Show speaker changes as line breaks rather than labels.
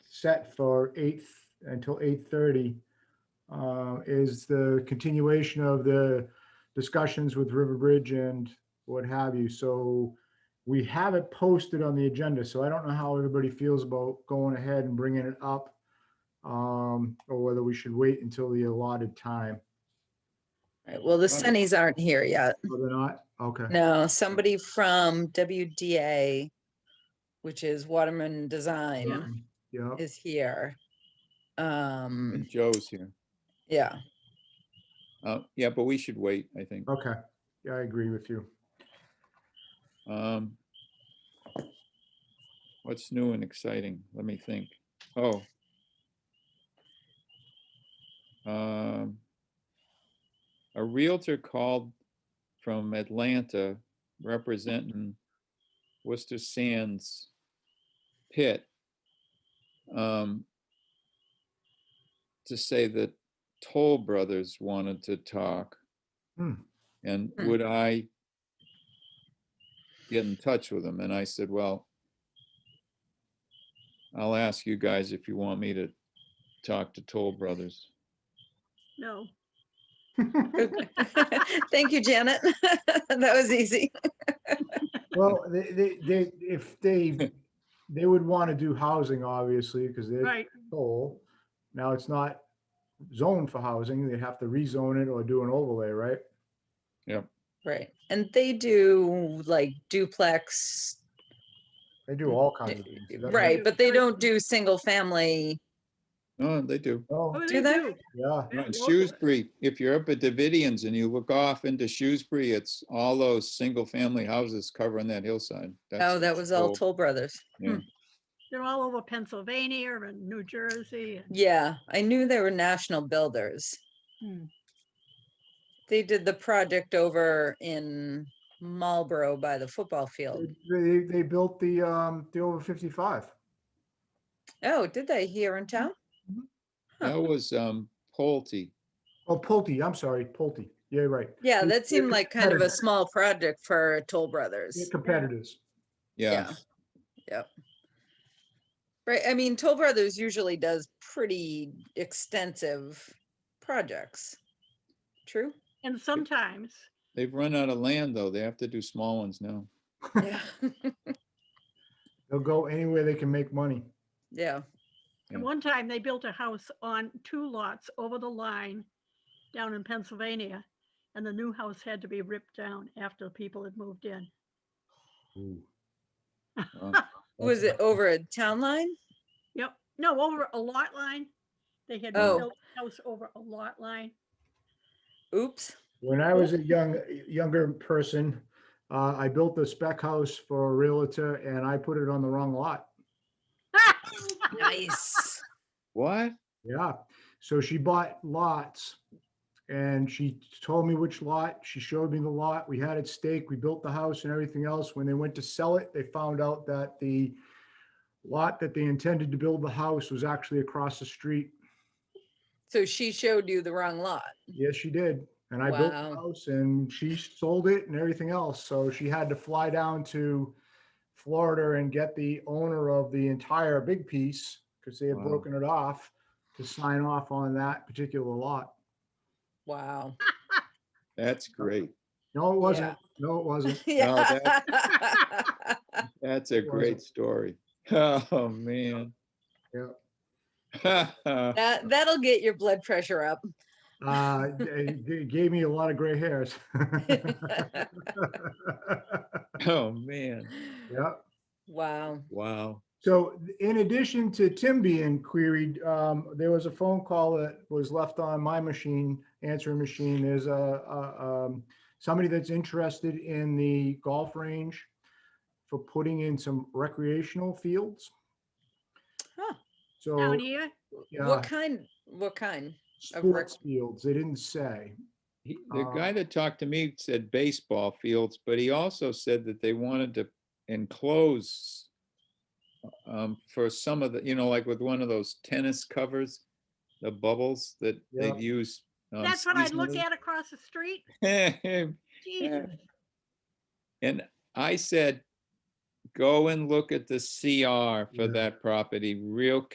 set for eight until eight thirty uh, is the continuation of the discussions with River Bridge and what have you. So we have it posted on the agenda, so I don't know how everybody feels about going ahead and bringing it up um, or whether we should wait until the allotted time.
Right, Well, the
Right.
Sunnies aren't here yet.
Whether or not, okay.
No, somebody from WDA, which is Waterman Design,
Yeah,
is here. Um,
Joe's here.
yeah,
Uh, yeah, but we should wait, I think.
okay. Yeah, I agree with you.
Um, what's new and exciting? Let me think. Oh. Um, a Realtor called from Atlanta representing Worcester Sands pit. Um, to say that Toll Brothers wanted to talk.
Hmm.
And
Hmm.
would I get in touch with them? And I said, well, I'll ask you guys if you want me to talk to Toll Brothers.
No.
thank you, Janet. That was easy.
Well, they, they, they, if they, they would want to do housing, obviously, because they're
Right,
full. Now, it's not zoned for housing. They'd have to rezone it or do an overlay, right?
Right, and they do like duplex,
They do all kinds of things. That's-
right,
do
but they
three.
don't do single family.
Oh, they do.
Oh,
oh,
Do
they
they?
do.
yeah.
Yeah,
No,
local
in
it.
Shrewsbury, if you're up at Davidians and you look off into Shrewsbury, it's all those single-family houses covering that hillside.
Oh,
That's
that was all Toll
Toll.
Hmm. Brothers.
They're all over Pennsylvania and New Jersey. and-
Yeah, I knew they were national builders.
Hmm.
They did the project over in Marlboro by the football field.
They, they built the, um, the over fifty-five.
Oh, did they here in town?
That was, um, Pulte.
Oh, Pulte, I'm sorry, Pulte. Yeah, right.
Yeah,
They-
that
they're
seemed like kind of a
competitive.
small project for Toll
They're
Brothers.
Competitors.
Yeah,
Right, I mean, Toll Brothers usually does pretty extensive projects. True?
And sometimes,
they've run out of land, though. They have to do small ones now.
Yeah,
They'll go anywhere they can make money.
yeah.
and
Yeah.
one time they built a house on two lots over the line down in Pennsylvania. And the new house had to be ripped down after people had moved in.
Wow.
Was it over a town line?
Yep, no, over a lot line. They had
Oh.
built a house over a lot line.
Oops.
When I was a young, younger person, uh, I built a spec house for a realtor and I put it on the wrong lot.
Nice.
What?
Yeah, so she bought lots and she told me which lot, she showed me the lot, we had it staked, we built the house and everything else. When they went to sell it, they found out that the lot that they intended to build the house was actually across the street.
So she showed you the wrong lot.
Yes, she did. And I built
Wow.
the house and she sold it and everything else. So she had to fly down to Florida and get the owner of the entire big piece because they had
Wow.
broken it off to sign off on that particular lot.
Wow.
That's great.
No, it
Yeah.
wasn't. No, it wasn't.
No, that-
Yeah.
That's a
was
great
it?
story. Oh, man. Yeah.
That, that'll get your blood pressure up.
Uh, it it gave me a lot of gray hairs.
Oh, man.
Yeah.
Wow.
Wow.
So th- in addition to Tim being queried, um, there was a phone call that was left on my machine, answering machine. There's a, a, um, somebody that's interested in the golf range for putting in some recreational fields.
Huh.
So,
Down here,
yeah,
What kind, what kind? of rec-
sports fields, they didn't say.
He- The
Uh,
guy that talked to me said baseball fields, but he also said that they wanted to enclose um, for some of the, you know, like with one of those tennis covers, the bubbles that
Yeah.
they'd use. um,
that's what I look
seasonally.
at across the street. Jesus.
And I said, go and look at the CR
Yeah.
for that property real